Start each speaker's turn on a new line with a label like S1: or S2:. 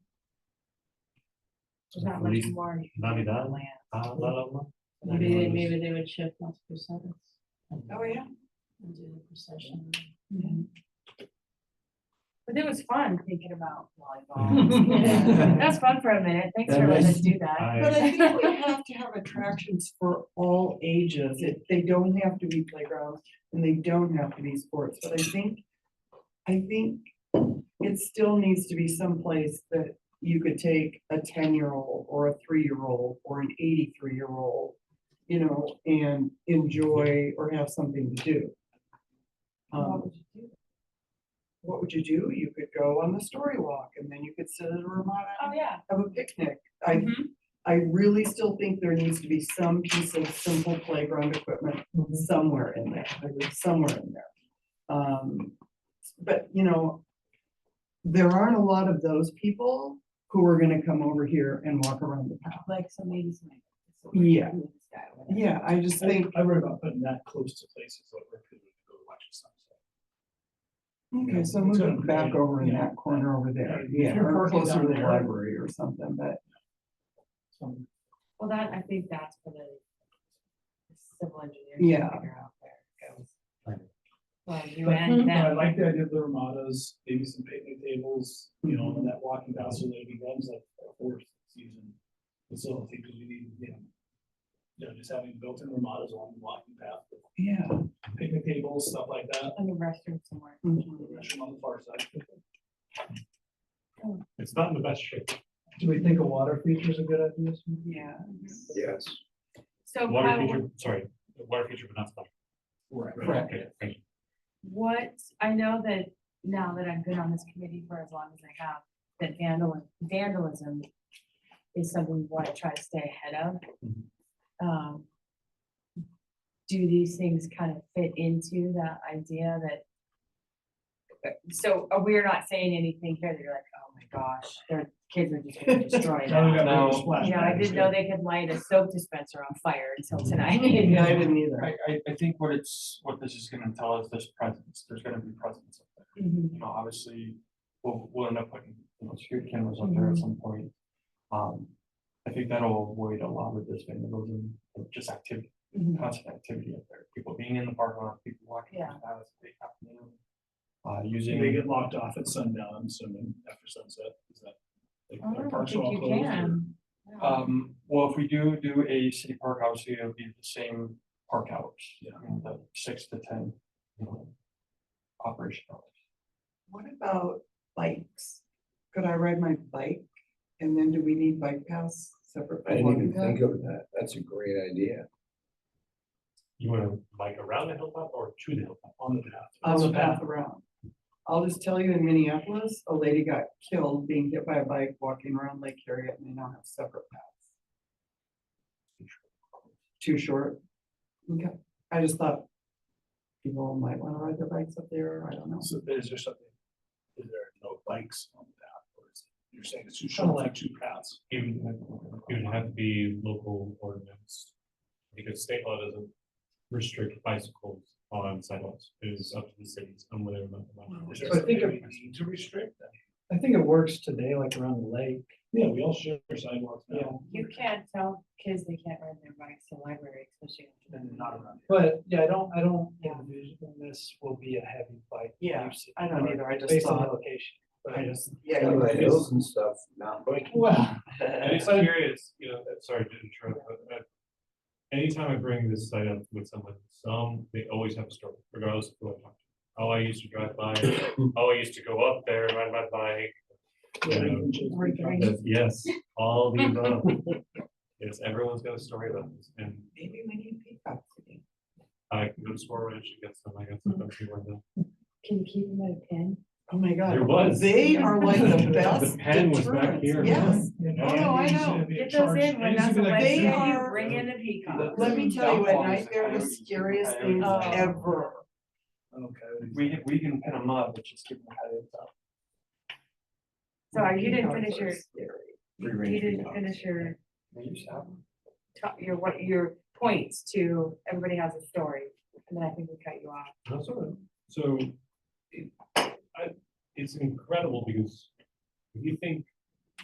S1: There's not much
S2: Forty-
S1: more. you can do with
S2: Ninety-nine?
S1: land.
S2: Uh, la, la, la.
S1: Maybe, they-
S2: Ninety-one is-
S1: maybe they would shift lots of percents
S3: Oh, yeah.
S1: and do the procession. Mm-hmm. But it was fun thinking about volleyball. That's fun for a minute. Thanks for letting us do that.
S3: But
S2: I,
S3: I think we have to have attractions for all ages. It, they don't have to be playgrounds and they don't have to be sports, but I think, I think it still needs to be someplace that you could take a ten-year-old or a three-year-old or an eighty-three-year-old, you know, and enjoy or have something to do. Um, what would you do? You could go on the story walk and then you could sit at a Ramada
S1: Oh,
S3: and
S1: yeah. Mm-hmm.
S3: have a picnic. I I really still think there needs to be some piece of simple playground equipment somewhere in there, I agree, somewhere in there. Um, but, you know, there aren't a lot of those people who are gonna come over here and walk around the path.
S1: Like some ladies might.
S3: Yeah. Yeah, I just think,
S4: I worry about putting that close to places like where people go to watch the sunset.
S3: okay, so move it back over in that corner over there, yeah, or closer to the library or something, but.
S4: Some-
S1: Well, that, I think that's for the civil engineer. to
S3: Yeah.
S1: Figure out where it goes.
S2: Right.
S1: Well, you
S4: But
S1: and
S4: but I
S1: them.
S4: like the idea of the ramadas, maybe some picnic tables, you know, and that walking path so that it becomes like a fourth season facility, because we need, you know. You know, just having built-in ramadas along the walking path,
S3: Yeah,
S4: picnic tables, stuff like that,
S1: And the restroom somewhere.
S3: Mm-hmm.
S4: restroom on the far side.
S2: it's not in the best shape.
S4: Do we think a water feature is a good idea?
S3: yeah, Mm-hmm.
S5: Yes.
S1: So
S2: Water
S1: Kyle,
S2: feature, sorry, water feature, but not splash.
S4: Right.
S3: Right.
S2: Okay, thank you.
S1: what, I know that now that I've been on this committee for as long as I have, that vandalism, vandalism is something we want to try to stay ahead of.
S2: Mhm.
S3: Mm-hmm.
S1: Um, Do these things kind of fit into that idea that? So uh, we're not saying anything here that you're like, oh my gosh, their kids are just gonna destroy
S4: Now we
S1: that.
S4: got
S5: Now-
S4: a splash
S1: You know, I
S4: pad.
S1: didn't know they could light a soap dispenser on fire until tonight.
S3: yeah, I didn't either.
S5: I, I, I think what it's, what this is gonna tell us, there's presence, there's gonna be presence up there.
S1: Mhm.
S5: You know, obviously, we'll, we'll end up putting, you know, security cameras up there at
S4: Mm-hmm.
S5: some point. Um, I think that'll avoid a lot of this vandalism, of just activity,
S1: Mhm.
S4: Mm-hmm.
S5: constant activity up there. People being in the parking lot, people walking.
S1: Yeah.
S5: paths, they have, you know, Uh,
S4: They
S5: using,
S4: get locked off at sundown, I'm assuming, after sunset, is that? like,
S1: I
S4: their
S1: don't
S4: parks are
S1: think
S4: all
S1: you
S4: closed or-
S1: can.
S5: um, well, if we do do a city park, obviously it'll be the same park hours.
S4: Yeah.
S5: you know, The six to ten, you know, operation hours.
S3: What about bikes? Could I ride my bike? And then do we need bike paths separate?
S6: I
S3: from
S6: didn't
S3: walking
S6: even
S3: path?
S6: think of that. That's a great idea.
S2: You wanna bike around the hilltop or to the hilltop?
S4: on the path.
S3: on the path around. I'll just tell you in Minneapolis, a lady got killed being hit by a bike walking around Lake Harriet and they now have separate paths. Too short? Okay, I just thought people might wanna ride their bikes up there, I don't know.
S4: So is there something, is there no bikes on the path, or is, it- you're saying it's two, kind of like two paths?
S2: It would, it would have to be local ordinance. Because state law doesn't restrict bicycles on sidewalks. It is up to the cities on whether or not. they want
S4: Is
S2: to.
S4: there
S7: So I
S4: something
S7: think
S4: we need to restrict that?
S7: I think it works today, like around the lake.
S4: Yeah, we all share sidewalks now.
S1: You can't tell kids they can't ride their bikes to the library, especially.
S4: And not around. here.
S7: But yeah, I don't, I don't
S1: Yeah.
S7: envision this will be a heavy bike.
S3: Yeah,
S7: use
S3: I don't either, I just
S7: Based on the
S3: thought,
S7: location.
S3: I just, yeah.
S6: Some
S3: you
S6: of the
S3: guys-
S6: hills and stuff, not biking.
S7: Well,
S2: And it's curious, you know, uh, sorry to interrupt, but uh, anytime I bring this site up with someone, some, they always have a story, regardless of who I talk to. Oh, I used to drive by, oh, I used to go up there, and ride my bike.
S1: We're doing-
S2: That's- Yes, all the above. It's, everyone's got a story about this, and
S3: Maybe we need peacocks again.
S2: I can go to Swan Ranch and get some, I got some up here one day.
S1: Can you keep them at a pin?
S3: Oh my god.
S2: There was.
S3: They are like the best
S2: pen was back
S3: deterrents,
S2: here.
S3: yes. Oh, no, I know.
S1: Get those in when that's a
S3: They
S1: Wednesday, you
S3: are-
S1: bring in the peacock.
S3: Let me tell you, at night, they're the scariest things
S1: Oh.
S3: ever.
S4: Okay.
S5: We, can- we can pin them up, but just give them heads up.
S1: So you didn't finish your,
S3: Scary.
S5: Free
S1: you
S5: range
S1: didn't
S5: peacocks.
S1: finish your,
S5: We used to have them.
S1: top- your, what, your points to everybody has a story. And then I think we cut you off.
S2: That's all right. So it, I, it's incredible because if you think